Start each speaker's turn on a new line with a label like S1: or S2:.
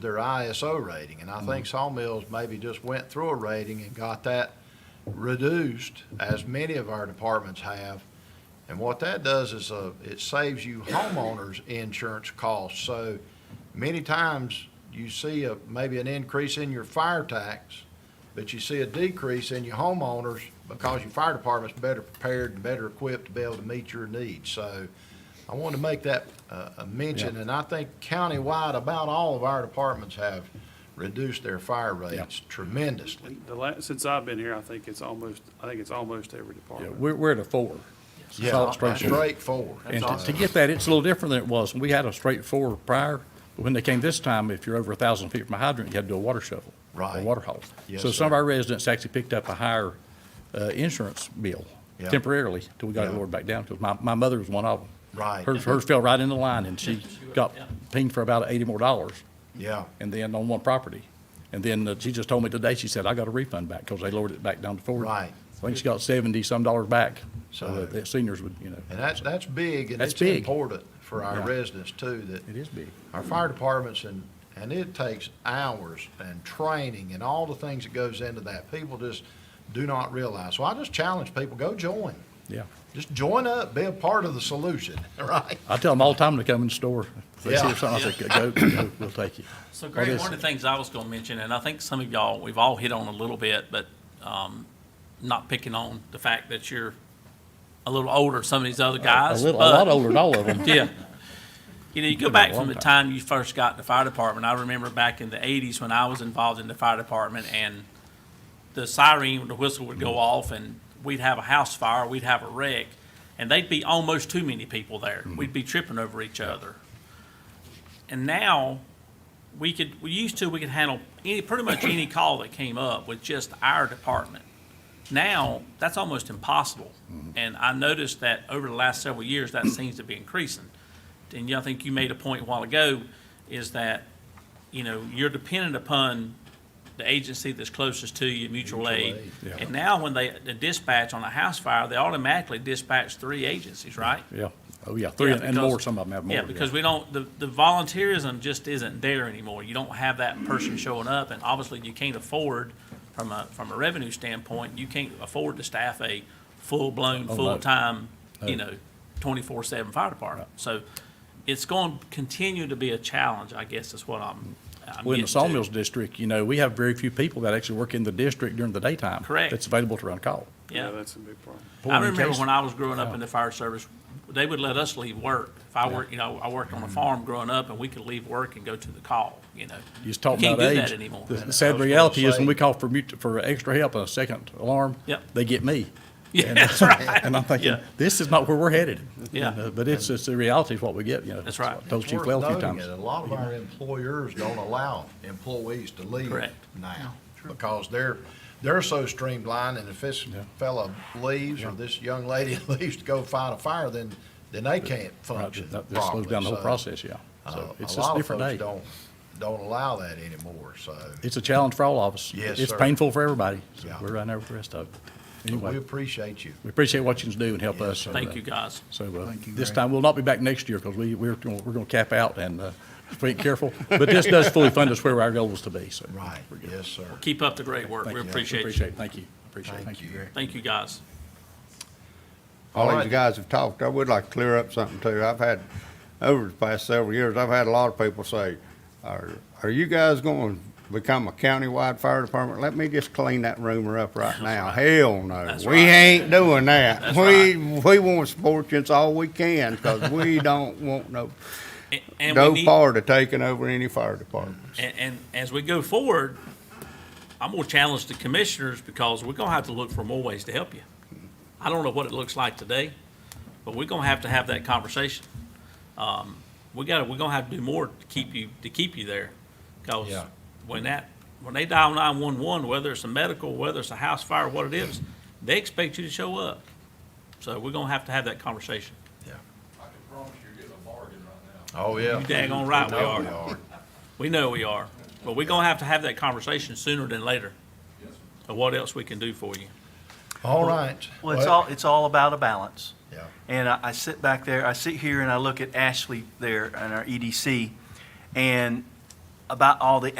S1: their ISO rating, and I think Sawmills maybe just went through a rating and got that reduced, as many of our departments have. And what that does is, uh, it saves you homeowners' insurance costs. So many times, you see a, maybe an increase in your fire tax, but you see a decrease in your homeowners because your fire department's better prepared and better equipped to be able to meet your needs. So I wanted to make that uh, a mention, and I think countywide, about all of our departments have reduced their fire rates tremendously.
S2: The last, since I've been here, I think it's almost, I think it's almost every
S3: Yeah,
S2: department.
S3: we're, we're at a four.
S1: Yeah,
S3: Solid
S1: that's
S3: structure.
S1: straightforward.
S3: And to- to get that, it's a little different than it was. We had a straight four prior, but when they came this time, if you're over a thousand feet from a hydrant, you had to do a water shovel.
S1: Right.
S3: Or water haul.
S1: Yes,
S3: So some of
S1: sir.
S3: our residents actually picked up a higher, uh, insurance bill
S1: Yeah.
S3: temporarily till we got it
S1: Yeah.
S3: lowered back down, because my, my mother was one of them.
S1: Right.
S3: Hers, hers fell right in the line and she got pinged for about eighty more dollars
S1: Yeah,
S3: and then on one property. And then uh, she just told me today, she said, I got a refund back because they lowered it back down to forty.
S1: Right.
S3: I think she got seventy-some dollars back, so
S1: So-
S3: that the seniors would, you know.
S1: and that's, that's big, and
S3: That's
S1: it's
S3: big.
S1: important for our
S3: Yeah.
S1: residents too, that
S3: It is big.
S1: our fire departments and, and it takes hours and training and all the things that goes into that. People just do not realize. So I just challenge people, go join.
S3: Yeah.
S1: Just join up, be a part of the solution, right?
S3: I tell them all the time to come in the store. If they see
S1: Yeah.
S3: something, I say, go, go, we'll take you.
S4: So
S3: Or
S4: Greg,
S3: this-
S4: one of the things I was going to mention, and I think some of y'all, we've all hit on a little bit, but um, not picking on the fact that you're a little older than some of these other
S3: A
S4: guys.
S3: little, a lot
S4: but-
S3: older than all of them.
S4: Yeah. You know, you go
S3: Been a
S4: back
S3: long
S4: from the time you first got in the fire department. I remember back in the eighties when I was involved in the fire department and the siren, the whistle would go off and we'd have a house fire, we'd have a wreck, and they'd be almost too many people there.
S3: Mm-hmm.
S4: We'd be tripping over each other. And now, we could, we used to, we could handle any, pretty much any call that came up with just our department. Now, that's almost impossible. And I noticed that over the last several years, that seems to be increasing. And yeah, I think you made a point a while ago, is that, you know, you're dependent upon the agency that's closest to you, mutual aid.
S3: aid, yeah.
S4: And now, when they the dispatch on a house fire, they automatically dispatch three agencies, right?
S3: Yeah. Oh, yeah. Three
S4: Yeah,
S3: and- and
S4: because-
S3: more, some of them have more.
S4: Yeah, because we don't, the, the volunteerism just isn't there anymore. You don't have that person showing up, and obviously you can't afford, from a, from a revenue standpoint, you can't afford to staff a full-blown,
S3: Oh, no.
S4: full-time, you
S3: No.
S4: know, twenty-four-seven fire department. So it's going to continue to be a challenge, I guess, is what I'm, I'm
S3: Well, in the
S4: getting to.
S3: Sawmills District, you know, we have very few people that actually work in the district during the daytime.
S4: Correct.
S3: That's available to run a call.
S4: Yeah.
S2: That's a big problem.
S4: I
S3: Boy, in
S4: remember
S3: case-
S4: when I was growing up in the fire service, they would let us leave work. If I worked, you know, I worked
S3: Mm.
S4: on a farm growing up and we could leave work and go to the call, you know.
S3: You just talking about
S4: Can't do
S3: age.
S4: that anymore.
S3: The-
S1: I
S3: The sad
S1: was gonna
S3: reality is when
S1: say-
S3: we call for mut, for extra help, a second alarm.
S4: Yep.
S3: They get me.
S4: Yeah, that's right.
S3: And I'm thinking,
S4: Yeah.
S3: this is not where we're headed.
S4: Yeah.
S3: And, uh, But it's, it's the reality of what we get, you know.
S4: That's right.
S3: I Told
S1: It's
S3: Chief
S1: worth
S3: Well a few
S1: noting
S3: times.
S1: that A lot of our employers don't allow employees to leave
S4: Correct.
S1: now because they're, they're so streamlined and if this fella leaves or this young lady leaves to go fight a fire, then, then they can't
S3: Right,
S1: function
S3: That that
S1: properly.
S3: slows down the whole
S1: So,
S3: process, yeah.
S1: uh,
S3: So it's
S1: a
S3: just
S1: lot
S3: a
S1: of
S3: different
S1: folks
S3: day.
S1: don't, don't allow that anymore, so
S3: It's a challenge for all of us.
S1: Yes,
S3: It's
S1: sir.
S3: painful for everybody. So
S1: Yeah.
S3: We're right there with the rest of it.
S1: we
S3: Anyway,
S1: appreciate you.
S3: we appreciate what you can do and help us. So, uh,
S4: Thank you, guys.
S3: So uh, this time, we'll not be back next year because we, we're, gonna- we're going to cap out and uh, if we ain't careful. But this does fully fund us where our goal was to be, so.
S1: Right, yes, sir.
S4: Keep up the great work.
S3: Thank
S4: We
S3: you.
S4: appreciate
S3: Appreciate
S4: you.
S3: it. Thank you. Appreciate it.
S1: Thank you.
S4: Thank you, guys.
S5: All
S1: Alright.
S5: these guys have talked, I would like to clear up something too. I've had, over the past several years, I've had a lot of people say, are, are you guys gonna become a countywide fire department? Let me just clean that rumor up right now. Hell no,
S4: That's
S5: we
S4: right.
S5: ain't doing that.
S4: That's
S5: We, we want sportsman's all we can, cause we don't want no,
S4: A- And we
S5: no
S4: need,
S5: part of taking over any fire department.
S4: and, and as we go forward, I'm gonna challenge the commissioners because we're gonna have to look for more ways to help you. I don't know what it looks like today, but we're gonna have to have that conversation. Um, we gotta, we're gonna have to do more to keep you, to keep you there. Cause
S1: Yeah.
S4: when that, when they dial nine-one-one, whether it's a medical, whether it's a house fire, what it is, they expect you to show up. So we're gonna have to have that conversation.
S1: Oh, yeah.
S4: You daggone right we
S1: I know
S4: are. We know we are, but we're gonna have to have that conversation sooner than later. Of what else we can do for you.
S1: All right.
S6: Well, it's all, it's all about a balance.
S1: Yeah.
S6: And I, I sit back there, I sit here E and I look at Ashley there and our EDC, and about all the